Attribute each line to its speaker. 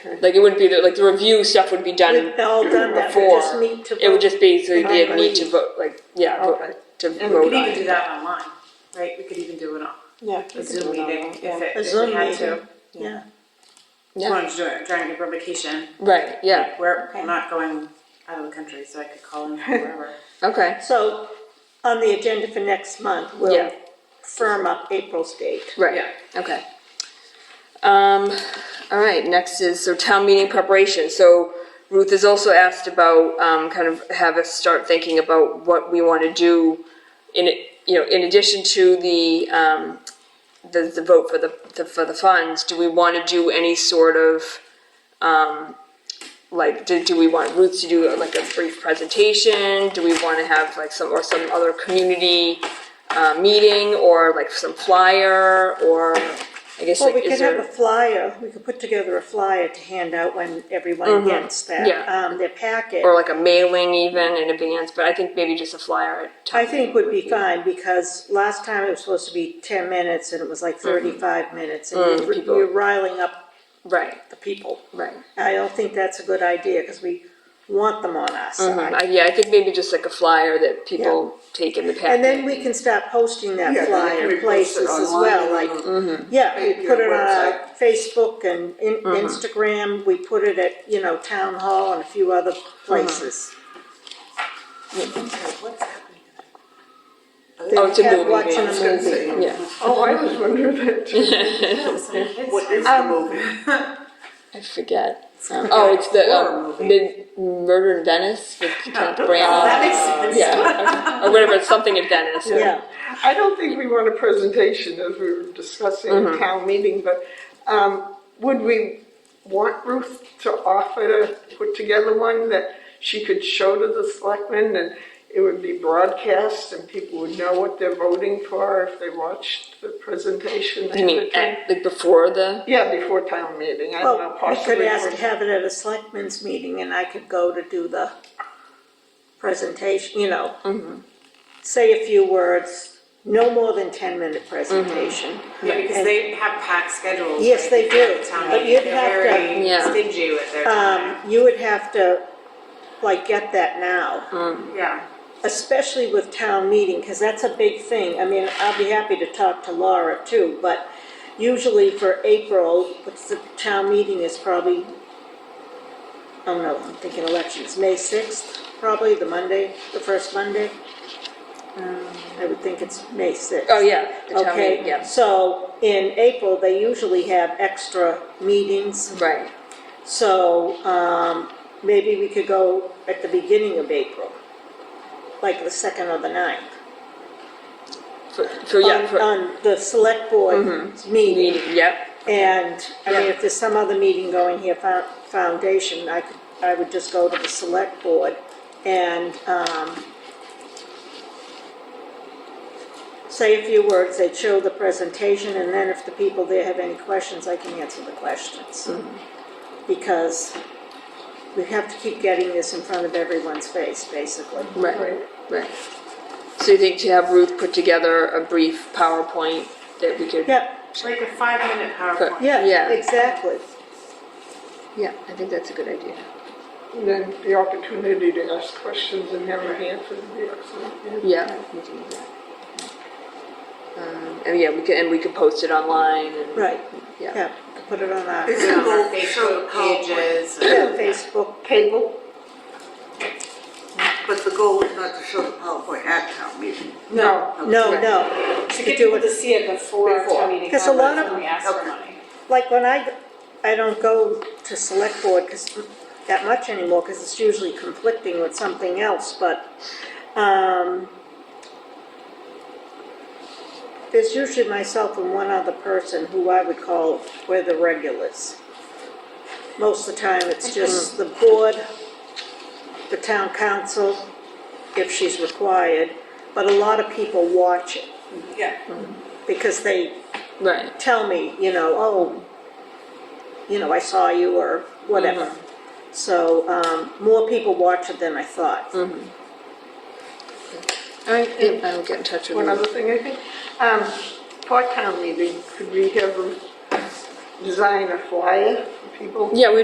Speaker 1: Like it wouldn't be, the- like the review stuff would be done
Speaker 2: We've all done that, we
Speaker 1: before.
Speaker 2: just need to.
Speaker 1: It would just be, so you'd
Speaker 2: Right.
Speaker 1: need to vote, like, yeah, vote-
Speaker 2: Okay.
Speaker 1: to
Speaker 3: And we
Speaker 1: vote
Speaker 3: could
Speaker 1: on
Speaker 3: even do
Speaker 1: it.
Speaker 3: that online, right? We could even do it on
Speaker 4: Yeah.
Speaker 3: a Zoom meeting if it,
Speaker 2: A
Speaker 3: if
Speaker 2: Zoom
Speaker 3: we had
Speaker 2: meeting.
Speaker 3: to.
Speaker 2: Yeah,
Speaker 3: As long as you're trying to get revocation,
Speaker 1: Right, yeah,
Speaker 3: we're
Speaker 2: Okay.
Speaker 3: not going out of the country, so I could call in from wherever.
Speaker 1: okay.
Speaker 2: so on the agenda for next month,
Speaker 1: Yeah.
Speaker 2: we'll firm up April's date.
Speaker 1: Right,
Speaker 3: Yeah.
Speaker 1: okay. Um, all right, next is, so town meeting preparation, so Ruth has also asked about, um, kind of have us start thinking about what we wanna do in, it- you know, in addition to the, um, the, the vote for the, the- for the funds, do we wanna do any sort of, um, like, do, do we want Ruth to do like a brief presentation? Do we wanna have like some, or some other community, uh, meeting, or like some flyer, or, I guess
Speaker 2: Well,
Speaker 1: like,
Speaker 2: we
Speaker 1: is
Speaker 2: could have a
Speaker 1: there?
Speaker 2: flyer, we could put together a flyer to hand out when everyone gets that,
Speaker 1: Mm-hmm. Yeah.
Speaker 2: um, their packet.
Speaker 1: Or like a mailing even in advance, but I think maybe just a flyer at
Speaker 2: I
Speaker 1: town
Speaker 2: think would be fine, because last time it was supposed to be ten minutes, and it was like thirty-five minutes, and you're-
Speaker 1: Mm-hmm. Mm, people-
Speaker 2: you're riling up
Speaker 1: Right,
Speaker 2: the people.
Speaker 1: right.
Speaker 2: I don't think that's a good idea, because we want them on our side.
Speaker 1: I- Yeah, I think maybe just like a flyer that people take in the packet.
Speaker 2: And then we can start posting that
Speaker 5: Yeah, then we
Speaker 2: flyer
Speaker 5: can post it
Speaker 2: places as
Speaker 5: online Mm-hmm.
Speaker 2: well,
Speaker 5: and
Speaker 2: like,
Speaker 5: on-
Speaker 2: yeah, we
Speaker 5: Yeah,
Speaker 2: put it on our
Speaker 5: website.
Speaker 2: Facebook and in, Instagram, we put it at, you know, town hall and a few other places.
Speaker 3: What's happening?
Speaker 1: Oh, it's a
Speaker 2: Cat
Speaker 1: movie,
Speaker 2: watching
Speaker 1: yeah.
Speaker 2: a
Speaker 5: I was gonna
Speaker 2: movie.
Speaker 5: say,
Speaker 1: Yeah.
Speaker 5: Oh, I was wondering that too. Um, What is the movie?
Speaker 1: I forget. Um, oh, it's the um, mid Murder in Venice with Kenneth Branagh.
Speaker 2: makes
Speaker 1: Yeah, or whatever. It's something in Venice.
Speaker 2: Yeah,
Speaker 5: I don't think we want a presentation as we were discussing at town meeting, but um, would we want Ruth to offer to put together one that she could show to the selectmen and it would be broadcast and people would know what they're voting for if they watched the presentation?
Speaker 1: You mean at, like before the?
Speaker 5: Yeah, before town meeting, I don't know,
Speaker 2: well, we
Speaker 5: Uh, possibly.
Speaker 2: could ask,
Speaker 5: for-
Speaker 2: have it at a selectmen's meeting and I could go to do the presentation, you know. Say a few words, no more than ten minute presentation.
Speaker 3: Yeah, because they have packed schedules.
Speaker 2: Yes,
Speaker 3: right,
Speaker 2: they do.
Speaker 3: at Town
Speaker 2: But
Speaker 3: meeting,
Speaker 2: you'd
Speaker 3: they're
Speaker 2: have to-
Speaker 3: very
Speaker 1: Yeah.
Speaker 3: stingy with their
Speaker 2: Um,
Speaker 3: time.
Speaker 2: you would have to, like, get that now,
Speaker 3: Yeah,
Speaker 2: especially with town meeting, because that's a big thing. I mean, I'll be happy to talk to Laura too, but usually for April, what's the town meeting is probably, I don't know, I'm thinking elections, May sixth, probably, the Monday, the first Monday. Um, I would think it's May sixth.
Speaker 1: Oh yeah, the town
Speaker 2: Okay,
Speaker 1: meeting. Yes.
Speaker 2: so in April, they usually have extra meetings.
Speaker 1: Right.
Speaker 2: So, um, maybe we could go at the beginning of April, like the second or the ninth.
Speaker 1: For, for yeah.
Speaker 2: On,
Speaker 1: For Mm-hmm.
Speaker 2: on the select board meeting,
Speaker 1: meeting. Yep.
Speaker 2: and, I mean,
Speaker 1: Yeah.
Speaker 2: if there's some other meeting going here, fo- foundation, I could, I would just go to the select board and, um, say a few words, they'd show the presentation, and then if the people there have any questions, I can answer the questions. Mm-hmm. Because we have to keep getting this in front of everyone's face, basically.
Speaker 1: Right. Right. So you think to have Ruth put together a brief PowerPoint that we could?
Speaker 2: Yeah,
Speaker 3: like a five-minute PowerPoint.
Speaker 2: yeah,
Speaker 1: Yeah.
Speaker 2: exactly.
Speaker 1: Yeah, I think that's a good idea.
Speaker 5: And Then the opportunity to ask questions and have an answer would be excellent. yeah.
Speaker 1: Yeah. We can do that. Um, and yeah, we can and we can post it online and
Speaker 2: Right,
Speaker 1: Yeah.
Speaker 2: yeah, put it on our
Speaker 3: You know, our Facebook pages. and-
Speaker 2: Facebook
Speaker 5: Table?
Speaker 6: But the goal is not to show the PowerPoint at town meeting.
Speaker 5: No.
Speaker 2: No, no,
Speaker 3: To get people to see it before our
Speaker 5: Before.
Speaker 3: town meeting,
Speaker 2: Because a lot
Speaker 3: comments
Speaker 2: of-
Speaker 3: when we ask for money.
Speaker 2: like when I, I don't go to select board 'cause- that much anymore, because it's usually conflicting with something else, but, um, there's usually myself and one other person who I would call, we're the regulars. Most of the time, it's just the board, the town council, if she's required, but a lot of people watch it,
Speaker 3: Yeah.
Speaker 2: because they
Speaker 1: right.
Speaker 2: tell me, you know, oh, you know, I saw you or whatever. So, um, more people watch it than I thought.
Speaker 1: All right. Yeah, I will get in touch with
Speaker 5: One
Speaker 1: Ruth.
Speaker 5: other thing, I think, um, part-time meeting, could we have them design a flyer for people?
Speaker 1: Yeah, we